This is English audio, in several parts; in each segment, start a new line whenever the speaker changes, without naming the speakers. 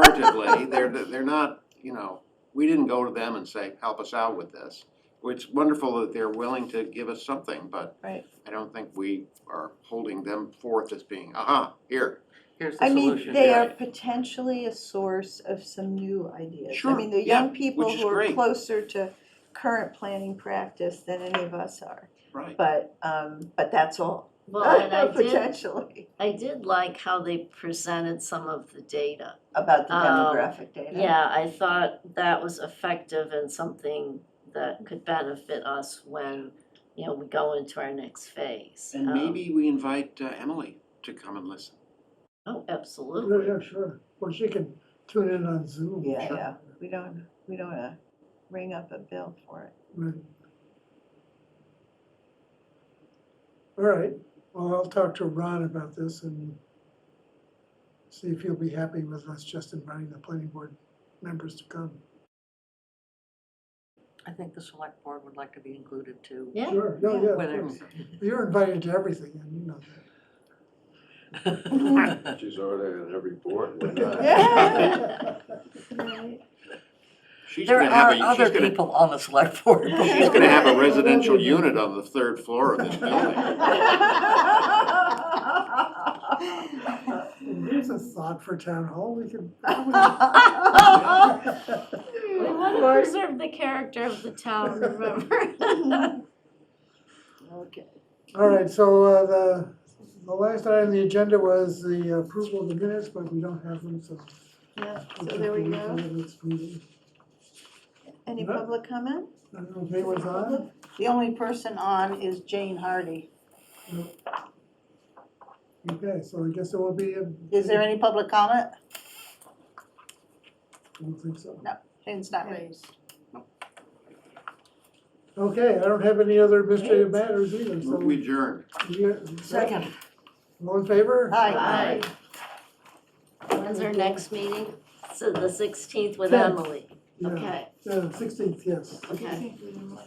pejoratively, they're, they're not, you know, we didn't go to them and say, help us out with this. It's wonderful that they're willing to give us something, but
Right.
I don't think we are holding them forth as being, aha, here.
Here's the
I mean,
solution.
they are
Right.
potentially a source of some new ideas.
Sure,
I mean, the
yeah,
young people
which is
who are
great.
closer to current planning practice than any of us are.
Right.
But, um, but that's all.
Well, and I did,
Potentially,
I did like how they presented some of the data.
about the
Um,
demographic data.
Yeah, I thought that was effective and something that could benefit us when, you know, we go into our next phase.
And
Um,
maybe we invite uh, Emily to come and listen.
Oh,
Yeah,
absolutely.
yeah, sure. Well, she can tune in on Zoom.
Yeah,
Sure.
yeah, we don't, we don't wanna ring up a bill for it.
Right. All right, well, I'll talk to Ron about this and see if he'll be happy with us just inviting the planning board members to come.
I think the select board would like to be included too.
Yeah,
Sure, yeah, yeah. of
Whether-
Hmm.
course. You're invited to everything, and you know
She's already on every board, we're
that.
She's
There
gonna have a-
are
she's
other
gonna-
people on the select board.
She's gonna have a residential unit on the third floor of this building.
There's a thought for town hall, we could.
we want to preserve the character of the town, remember?
Okay.
All right, so uh, the, the last item on the agenda was the approval of the minutes, but we don't have them, so.
Yeah, so
we'll take
there we
the week
go.
of the next meeting.
Any
No.
public comment?
I don't know if anyone's on.
The only person on is Jane Hardy.
Okay, so I guess it will be a.
Is there any public comment?
I don't think so.
Jane's not raised.
Okay, I don't have any other administrative matters either, so.
We adjourned.
you-
Second.
All in favor?
Aye.
When's our next meeting? So the sixteenth with
Tenth.
Emily,
Yeah,
okay,
uh, sixteenth, yes.
okay,
Thank you.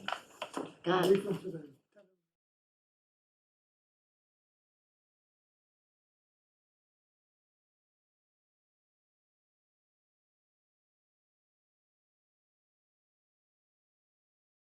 got it.
Week from today.